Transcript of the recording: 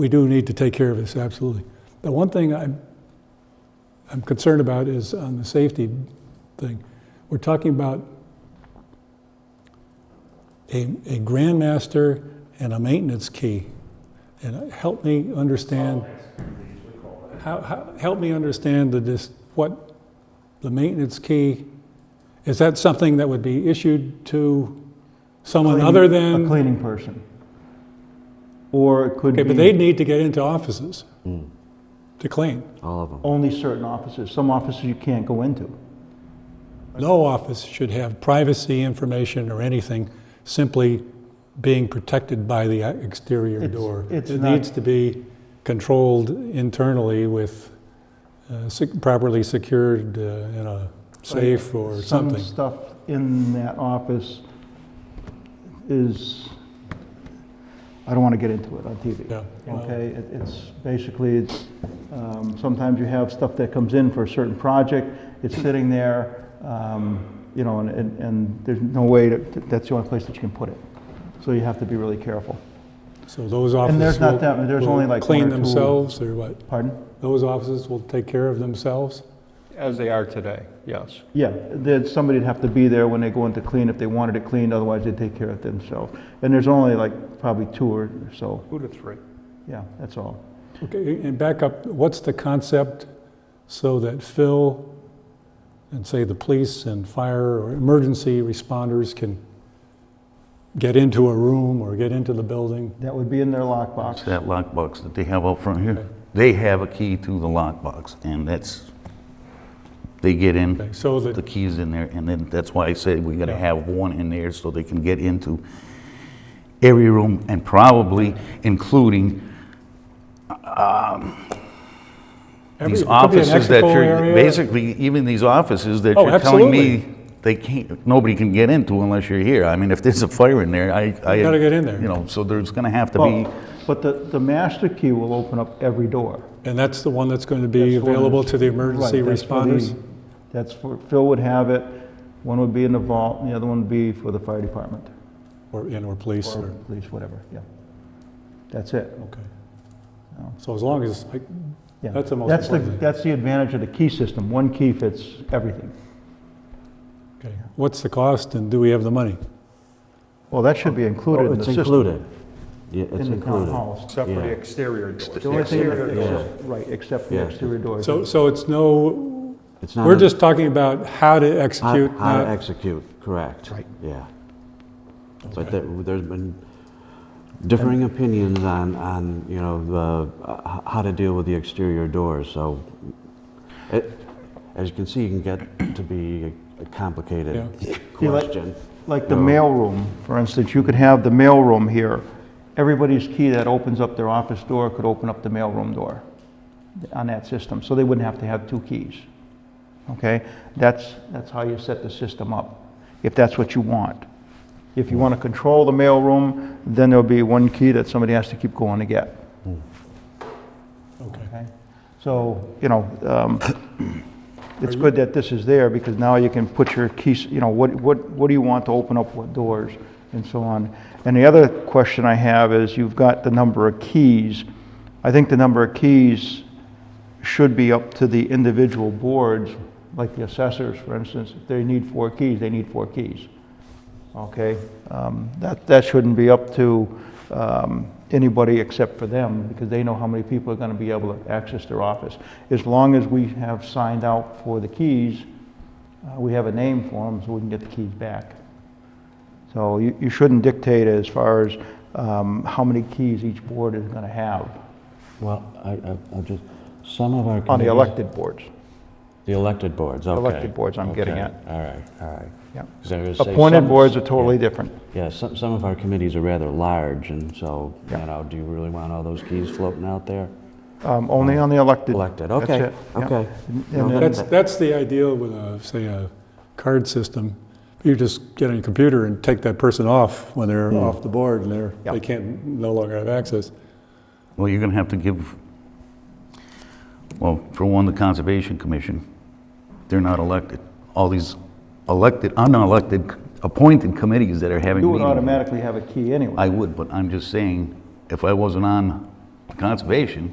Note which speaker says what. Speaker 1: we do need to take care of this, absolutely. The one thing I'm, I'm concerned about is on the safety thing. We're talking about a, a grandmaster and a maintenance key. And help me understand, how, how, help me understand the, dis what the maintenance key, is that something that would be issued to someone
Speaker 2: Cleaning-
Speaker 1: other
Speaker 2: A
Speaker 1: than?
Speaker 2: cleaning person. Or it could
Speaker 1: Okay, but
Speaker 2: be
Speaker 1: they'd need to get into offices to clean.
Speaker 3: All of them.
Speaker 2: only certain offices. Some offices you can't go into.
Speaker 1: No office should have privacy information or anything simply being protected by the exterior
Speaker 2: It's-
Speaker 1: door.
Speaker 2: it's
Speaker 1: It
Speaker 2: not-
Speaker 1: needs to be controlled internally with uh, sec- properly secured uh, in a safe or something.
Speaker 2: Some stuff in that office is, I don't want to get into it on TV.
Speaker 1: Yeah, well-
Speaker 2: Okay, It- it's basically, it's, um, sometimes you have stuff that comes in for a certain project, it's sitting there, um, you know, and, and- and there's no way, that that's the only place that you can put it. So you have to be really careful.
Speaker 1: So those offices
Speaker 2: there's not
Speaker 1: will-
Speaker 2: that many. There's
Speaker 1: will
Speaker 2: only like one
Speaker 1: Clean
Speaker 2: or two.
Speaker 1: themselves or what?
Speaker 2: Pardon?
Speaker 1: Those offices will take care of themselves?
Speaker 4: As they are today, yes.
Speaker 2: Yeah, there'd, somebody'd have to be there when they go in to clean if they wanted it cleaned, otherwise they'd take care of it themselves. And there's only like probably two or so,
Speaker 4: Two to three.
Speaker 2: yeah, that's all.
Speaker 1: Okay, and back up, what's the concept so that Phil and say the police and fire or emergency responders can get into a room or get into the building?
Speaker 2: That would be in their lockbox.
Speaker 5: That lockbox that they have out front
Speaker 1: Okay.
Speaker 5: here, they have a key to the lockbox, and that's, they get
Speaker 1: Okay,
Speaker 5: in,
Speaker 1: So
Speaker 5: the
Speaker 1: that,
Speaker 5: key's in there, and then that's why I said we gotta
Speaker 1: Yeah.
Speaker 5: have one in there so they can get into every room, and probably including
Speaker 1: every, it could be
Speaker 5: these
Speaker 1: an
Speaker 5: offices that
Speaker 1: expo
Speaker 5: you're,
Speaker 1: area.
Speaker 5: basically, even these offices that
Speaker 1: Oh,
Speaker 5: you're telling
Speaker 1: absolutely.
Speaker 5: me they can't, nobody can get into unless you're here. I mean, if there's a fire in there, I, I.
Speaker 1: gotta get in there.
Speaker 5: You know, so there's gonna have to be.
Speaker 2: Well, But the, the master key will open up every door.
Speaker 1: And that's the one that's going to be
Speaker 2: That's what
Speaker 1: available
Speaker 2: it-
Speaker 1: to the emergency
Speaker 2: right, that's for the-
Speaker 1: responders?
Speaker 2: That's for, Phil would have it, one would be in the vault, and the other one would be for the fire department,
Speaker 1: Or, and or police
Speaker 2: or
Speaker 1: or,
Speaker 2: police, whatever, yeah. That's it.
Speaker 1: okay.
Speaker 2: No.
Speaker 1: So as long as, like,
Speaker 2: Yeah.
Speaker 1: That's the most important thing.
Speaker 2: That's the advantage of the key system, one key fits everything.
Speaker 1: okay, what's the cost and do we have the money?
Speaker 2: Well, that should be included in
Speaker 3: Oh,
Speaker 2: the
Speaker 3: it's
Speaker 2: system.
Speaker 3: included. Yeah, it's
Speaker 2: In the town
Speaker 3: included.
Speaker 2: halls.
Speaker 4: Except for
Speaker 3: Yeah.
Speaker 4: the exterior doors.
Speaker 2: The only thing, that-
Speaker 4: Exterior doors.
Speaker 2: except- right, except for the
Speaker 3: Yeah.
Speaker 2: exterior doors.
Speaker 1: So, so it's no,
Speaker 3: It's not
Speaker 1: we're
Speaker 3: a-
Speaker 1: just talking about how to
Speaker 3: how-
Speaker 1: execute,
Speaker 3: How to
Speaker 1: not
Speaker 3: execute, correct.
Speaker 2: Right.
Speaker 3: Yeah. But there- there's been differing opinions on, on, you know, the, uh, h- how to deal with the exterior doors, so it, as you can see, it can get to be a complicated
Speaker 2: You like-
Speaker 3: question.
Speaker 2: Like the mailroom, for instance, you could have the mailroom here. Everybody's key that opens up their office door could open up the mailroom door on that system, so they wouldn't have to have two keys. Okay? That's, that's how you set the system up, if that's what you want. If you want to control the mailroom, then there'll be one key that somebody has to keep going to get.
Speaker 1: okay.
Speaker 2: Okay, So, you know, um, it's good that this is there, because now you can put your keys, you know, what, what, what do you want to open up, what doors, and so on. And the other question I have is, you've got the number of keys. I think the number of keys should be up to the individual boards, like the assessors, for instance. If they need four keys, they need four keys. Okay? Um, That, that shouldn't be up to um, anybody except for them, because they know how many people are going to be able to access their office. As long as we have signed out for the keys, uh, we have a name for them, so we can get the keys back. So you, you shouldn't dictate as far as um, how many keys each board is going to have
Speaker 3: Well, I, I, I'll just, some of our.
Speaker 2: on the
Speaker 3: committees-
Speaker 2: elected boards.
Speaker 3: The elected boards, okay.
Speaker 2: Elected boards, I'm getting
Speaker 3: Okay,
Speaker 2: at.
Speaker 3: All right, all right.
Speaker 2: Yeah.
Speaker 3: 'Cause I was gonna say
Speaker 2: Appointed
Speaker 3: some-
Speaker 2: boards are totally different.
Speaker 3: Yeah, some, some of our committees are rather large, and so, you
Speaker 2: Yeah.
Speaker 3: know, do you really want all those keys floating out there?
Speaker 2: Um, Only on the elected.
Speaker 3: Elected,
Speaker 2: That's
Speaker 3: okay,
Speaker 2: it, yeah.
Speaker 3: okay.
Speaker 2: and
Speaker 3: No,
Speaker 2: then-
Speaker 1: That's, that's the ideal with a, say, a card system. You just get on a computer and take that person off when they're off the board and they're,
Speaker 2: Hmm. Yeah.
Speaker 1: they can't, no longer have access.
Speaker 5: Well, you're gonna have to give, well, for one, the Conservation Commission, they're not elected. All these elected, unelected, appointed committees that are having
Speaker 2: You would
Speaker 5: meetings.
Speaker 2: automatically have a key anyway.
Speaker 5: I would, but I'm just saying, if I wasn't on Conservation,